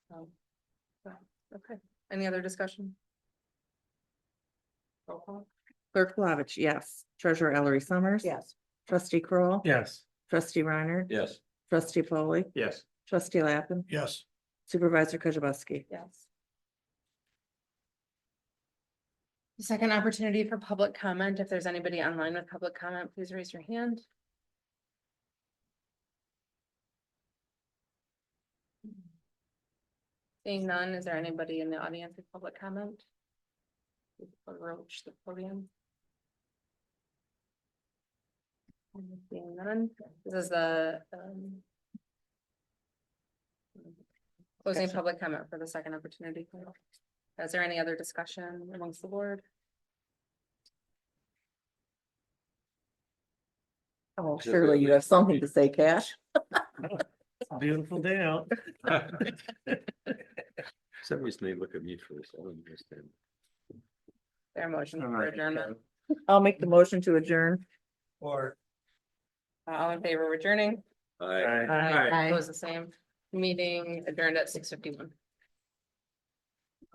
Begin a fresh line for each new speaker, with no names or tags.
So, yeah, okay, any other discussion? Roll call?
Clerk Plavich, yes. Treasurer Ellery Summers.
Yes.
Trustee Kroll,
Yes.
Trustee Reiner.
Yes.
Trustee Foley,
Yes.
Trustee Lappin,
Yes.
Supervisor Kujabaski.
Yes. The Second opportunity for public comment. If there's anybody online with public comment, please raise your hand. Seeing none, is there anybody in the audience with public comment? Approach the podium. Seeing none, this is the um, Closing
Discussion.
public comment for the second opportunity. Is there any other discussion amongst the board?
Oh, surely you have something to say, Cash.
Beautiful day out. Some reason they look at me first, I don't understand.
Their motion for adjournment.
I'll make the motion to adjourn.
Or.
Uh, All in favor of adjourning?
Aye.
It was the same meeting adjourned at six fifty-one.